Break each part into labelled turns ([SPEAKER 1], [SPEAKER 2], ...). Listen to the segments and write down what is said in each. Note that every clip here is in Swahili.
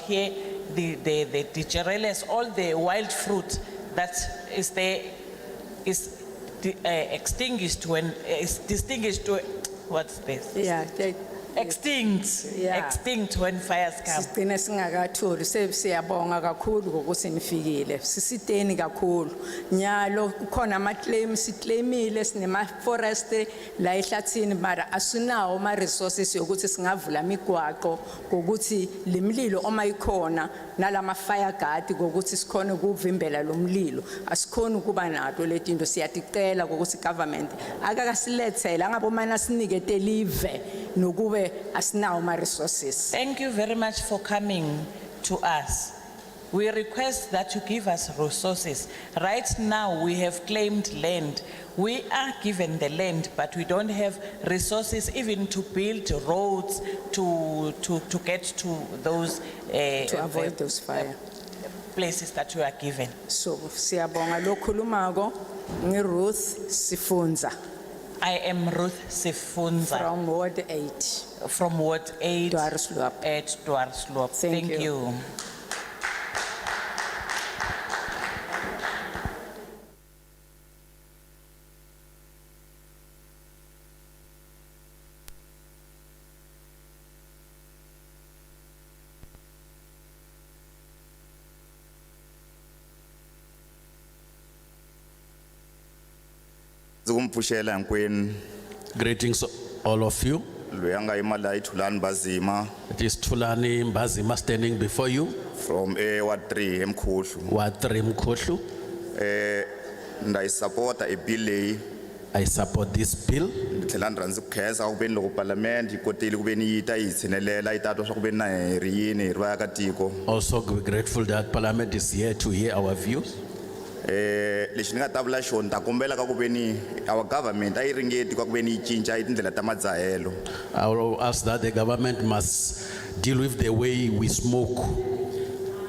[SPEAKER 1] here, the, the, the tigereles, all the wild fruit that is there is di- eh, extinguished when, uh, is distinguished, when- what's this?
[SPEAKER 2] ya ke-
[SPEAKER 1] Extinct,
[SPEAKER 2] Yeah.
[SPEAKER 1] extinct when fires come.
[SPEAKER 2] sigcine singakatholi se- siyabonga kakhulu ngokuthi nifikile sisiteni kakhulu nyalo kukhona ama-claim siclaimile sinema-forestry la ehlathini mara asinawo ama-resources yokuthi singavula imigwaqo ngokuthi le mlilo uma ikhona nalama-fire guard ngokuthi sikhone ukuvimbela lo mlilo asikhoni ukuba nato le tinto siyaticela ngokuthi government akakasilethele angabe umane asinikete live nokube asinawo ama-resources
[SPEAKER 1] Thank you very much for coming to us. We request that you give us resources. Right now, we have claimed land. We are given the land, but we don't have resources even to build roads to, to, to get to those eh,
[SPEAKER 2] to avoid those fire.
[SPEAKER 1] places that we are given.
[SPEAKER 2] So siyabonga lo khulumako ngi Ruth Sifunza
[SPEAKER 1] I am Ruth Sifunza
[SPEAKER 2] from Ward 8,
[SPEAKER 1] from Ward 8
[SPEAKER 2] Dwarsloop.
[SPEAKER 1] at Dwarsloop.
[SPEAKER 2] Thank
[SPEAKER 1] Thank
[SPEAKER 2] you.
[SPEAKER 1] you.
[SPEAKER 3] ndzi ku mi pfuxela hinkwenu
[SPEAKER 4] Greetings all of you.
[SPEAKER 3] loyi a nga yima laha i thulani bazima
[SPEAKER 4] It is Tulani Mbazima standing before you.
[SPEAKER 3] from a ward three emkhuhlu
[SPEAKER 4] Watri Mkotlu.
[SPEAKER 3] nda yi sapota e bill leyi
[SPEAKER 4] I support this bill.
[SPEAKER 3] ni tlhela ni rhandzi ku khensa ku veni loko palamende yi kotile ku veni yi ta yi hi tshinelela yi ta twa swa eh, ku veni na hi ri yini hi ri vaakatiko
[SPEAKER 4] Also we're grateful that Parliament is here to hear our views.
[SPEAKER 3] um lexi ni nga ta vula xona ni ta kombela ka ku veni our government a yi ringeti ka ku veni yi cinca hi tindlela ta madzahelo
[SPEAKER 4] I will ask that the government must deal with the way we smoke.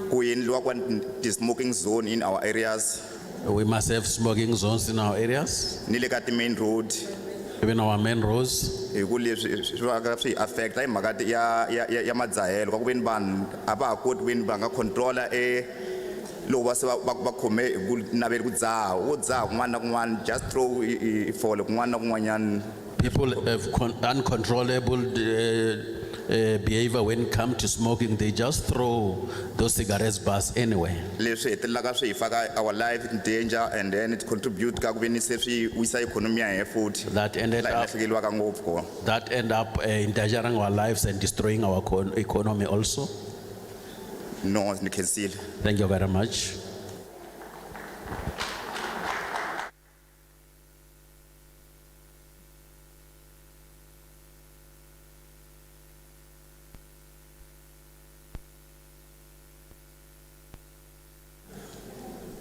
[SPEAKER 3] ku endliwa kwa ti-smoking zone in our areas
[SPEAKER 4] We must have smoking zones in our areas,
[SPEAKER 3] ni le ka ti-main road
[SPEAKER 4] even our main roads.
[SPEAKER 3] hi ku leswi swi va ka swi hi affecta hi mhaka ti- ya ya ya ya madzahelo ka ku veni vanhu a va ha koti ku veni va nga controla e loko va se va va va khome hi ku naveli ku dzaha wo dzaha kun'wana na kun'wana just throw i- i- i fole kun'wana na kun'wanyana
[SPEAKER 4] People have con- uncontrollable uh, uh, behavior when it comes to smoking. They just throw those cigarettes bars anywhere.
[SPEAKER 3] leswi hetelelaka swi hi faka our life in danger and then it contribute ka ku veni se swi wisa ikhonomi ya hehe futhi
[SPEAKER 4] That ended
[SPEAKER 3] laha hi
[SPEAKER 4] up
[SPEAKER 3] lahlekeliwaka ngopfu kona
[SPEAKER 4] that end up uh, endangering our lives and destroying our econ- economy also.
[SPEAKER 3] no ni khensile
[SPEAKER 4] Thank you very much.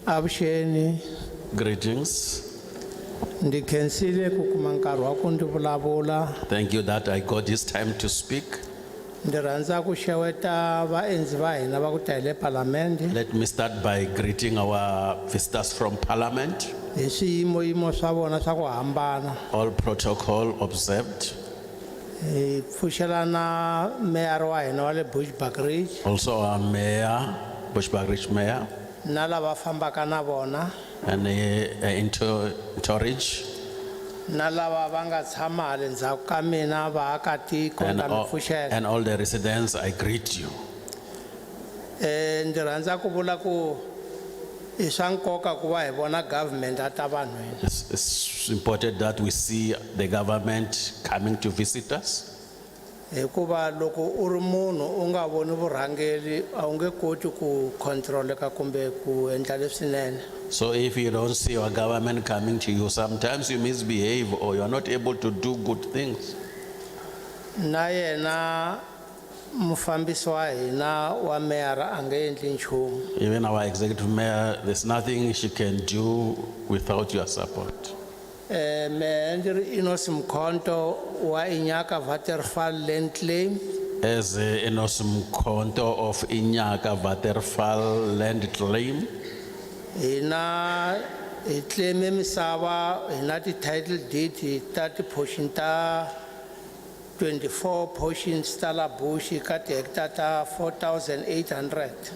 [SPEAKER 5] avuxeni
[SPEAKER 4] Greetings.
[SPEAKER 5] ndzi khensile ku kuma nkarhi wa ku ndzi vulavula
[SPEAKER 4] Thank you that I got this time to speak.
[SPEAKER 5] ndzi rhandza ku xeweta vaendzi va hina va ku ta hi le palamende
[SPEAKER 4] Let me start by greeting our visitors from Parliament.
[SPEAKER 5] hi swiyimoyimo swa vona swa ku hambana
[SPEAKER 4] All protocol observed.
[SPEAKER 5] hi pfuxelana meyara wa hina wa le bushback ridge
[SPEAKER 4] Also our mayor, Bushbuck Ridge Mayor,
[SPEAKER 5] na lava fambaka na vona
[SPEAKER 4] and uh, uh, into Torridge,
[SPEAKER 5] na lava va nga tshama hale ndzhaku ka mina vaakatiko
[SPEAKER 4] and
[SPEAKER 5] ta mi
[SPEAKER 4] all,
[SPEAKER 5] pfuxela
[SPEAKER 4] and all the residents. I greet you.
[SPEAKER 5] um ndzi rhandza ku vula ku i swa nkoka ku va hi vona government a ta vanhwini
[SPEAKER 4] It's, it's important that we see the government coming to visit us.
[SPEAKER 5] hikuva Eh, loko u ri munhu u nga voni vurhangeri a wu nge koti ku controleka kumbe ku endla leswinene
[SPEAKER 4] So if you don't see your government coming to you, sometimes you misbehave or you are not able to do good things.
[SPEAKER 5] na yena mufambisi wa hina wa meyara a nge endli nchumu
[SPEAKER 4] Even our executive mayor, there's nothing she can do without your support.
[SPEAKER 5] um mehe ndzi ri inos mkhonto wa inyaka vaterfal land claim
[SPEAKER 4] As Enos Mkonto of Inyaka Vaterfal land claim,
[SPEAKER 5] hina hi claim misava hi na ti-title deed ta ti-portion ta 24 portions ta la bush ka tihekitara ta 4800